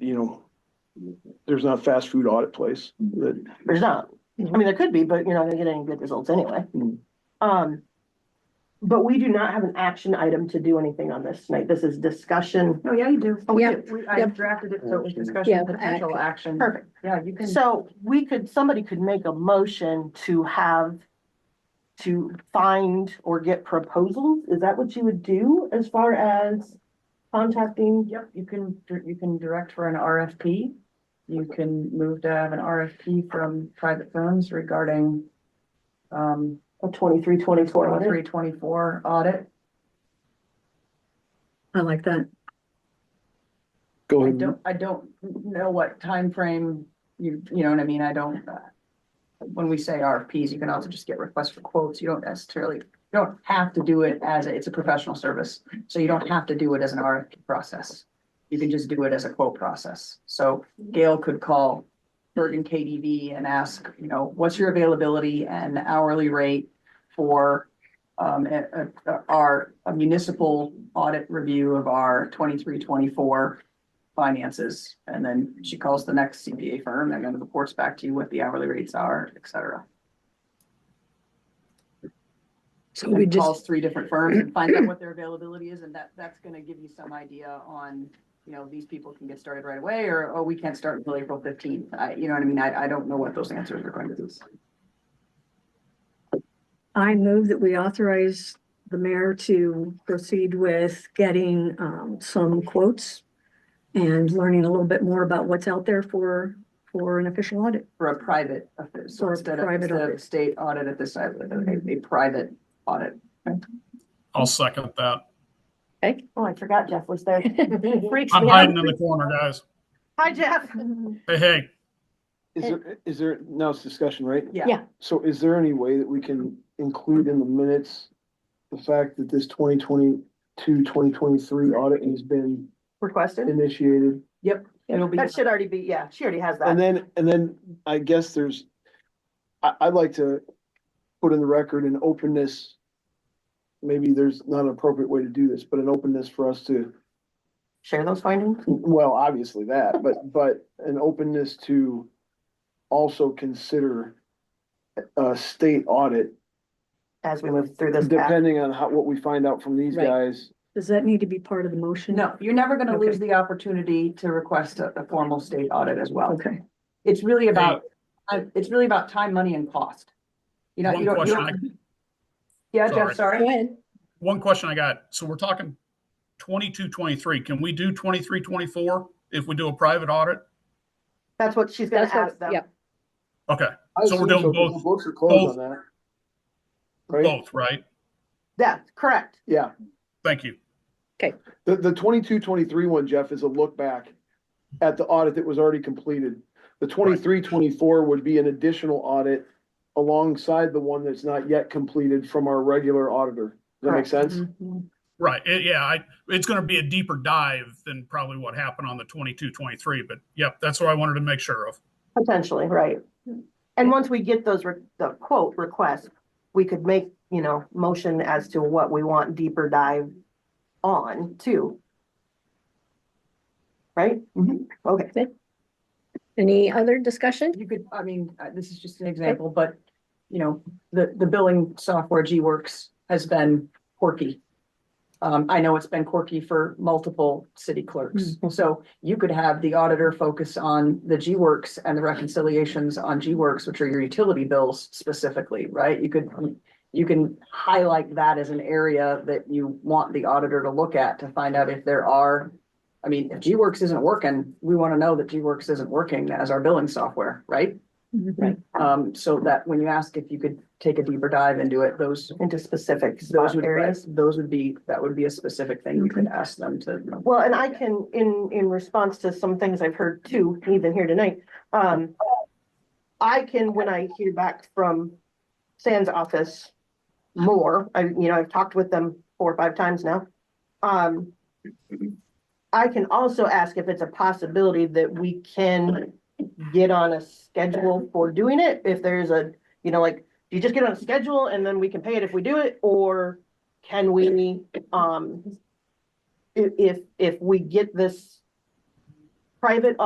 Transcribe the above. you know, there's not a fast food audit place that, There's not. I mean, there could be, but you're not gonna get any good results anyway. Mm. Um, but we do not have an action item to do anything on this tonight. This is discussion. Oh, yeah, you do. Oh, we Yeah, do. we- I Yep. drafted it, so it was Yeah, discussion, potential action. Perfect. Yeah, you can. So we could, somebody could make a motion to have to find or get proposals. Is that what you would do as far as contacting? Yep, you can, dir- you can direct for an RFP. You can move to have an RFP from private firms regarding um, A twenty-three, twenty-four, whatever. twenty-three, twenty-four audit. I like that. go I ahead. don't, I don't know what time frame you, you know what I mean? I don't. uh, When we say RFPs, you can also just get requests for quotes. You don't necessarily, you don't have to do it as, a- it's a professional service. So you don't have to do it as an RFP process. You can just do it as a quote process. So Gail could call Bergen KDV and ask, you know, what's your availability and hourly rate for um, a- a- our a municipal audit review of our twenty-three, twenty-four finances, and then she calls the next CPA firm and then reports back to you what the hourly rates are, et cetera. So we And just, calls three different firms and finds out what their availability is, and that, that's gonna give you some idea on, you know, these people can get started right away, or, oh, we can't start until April fifteenth. I, you know what I mean? I, I don't know what those answers are going to be. I move that we authorize the mayor to proceed with getting um some quotes and learning a little bit more about what's out there for, for an official audit. For a private, office, so For a instead of, private instead of audit. state audit at this side, a, a private audit. I'll second that. Oh, I forgot Jeff was there. Freaks I'm me out. hiding in the corner, guys. Hi, Jeff. Hey, hey, Is there, is there, now it's discussion, right? Yeah. Yeah. So is there any way that we can include in the minutes the fact that this 2022, 2023 audit has been Requested. initiated? It'll be, That should already be, yeah, she already has And that. then, and then I guess there's, I, I'd like to put in the record an openness. Maybe there's not an appropriate way to do this, but an openness for us to, Share those findings. well, obviously that, but, but an openness to also consider a state audit, as we move through this. path. depending on how, what we find out from these Right. guys. Does that need to be part of the motion? no, you're never gonna Okay. lose the opportunity to request a, a formal state audit as well. Okay, It's really about, uh, it's really about time, money and cost. You know, one you don't, you question, don't, I- yeah, Jeff, Sorry. sorry. ahead. one question I got. So we're talking twenty-two, twenty-three. Can we do twenty-three, twenty-four if we do a private audit? That's what she's gonna That's what- ask them. yep. Okay, I So we're assume doing 'cause both- the Books are closed both- on that. Right? both, right? Yeah, correct. Yeah. Thank you. The, the 22 23 one, Jeff, is a look back at the audit that was already completed. The 23 24 would be an additional audit alongside the one that's not yet completed from our regular auditor. Does that make Correct. Mm-hmm. sense? Right, it- yeah, I, it's gonna be a deeper dive than probably what happened on the twenty-two, twenty-three, but yep, that's what I wanted to make sure of. Potentially, right. And once we get those, re- the quote request, we could make, you know, motion as to what we want deeper dive on too. Right? Mhm. Okay, Any other discussion? You could, I mean, uh, this is just an example, but, you know, the, the billing software G-Works has been quirky. Um, I know it's been quirky for multiple city clerks, so you could have the auditor focus on the G-Works and the reconciliations on G-Works, which are your utility bills specifically, right? You could, you can highlight that as an area that you want the auditor to look at to find out if there are. I mean, if G-Works isn't working, we want to know that G-Works isn't working as our billing software, right? Mm-hmm. Um, so that when you ask if you could take a deeper dive into it, those, into specific those spot would, areas. those would be, that would be a specific thing you could ask them to. Well, and I can, in, in response to some things I've heard too, even here tonight, um, I can, when I hear back from Sands office more, I, you know, I've talked with them four or five times now. Um, I can also ask if it's a possibility that we can get on a schedule for doing it, if there's a, you know, like, do you just get on a schedule and then we can pay it if we do it, or can we, um, i- if, if we get this private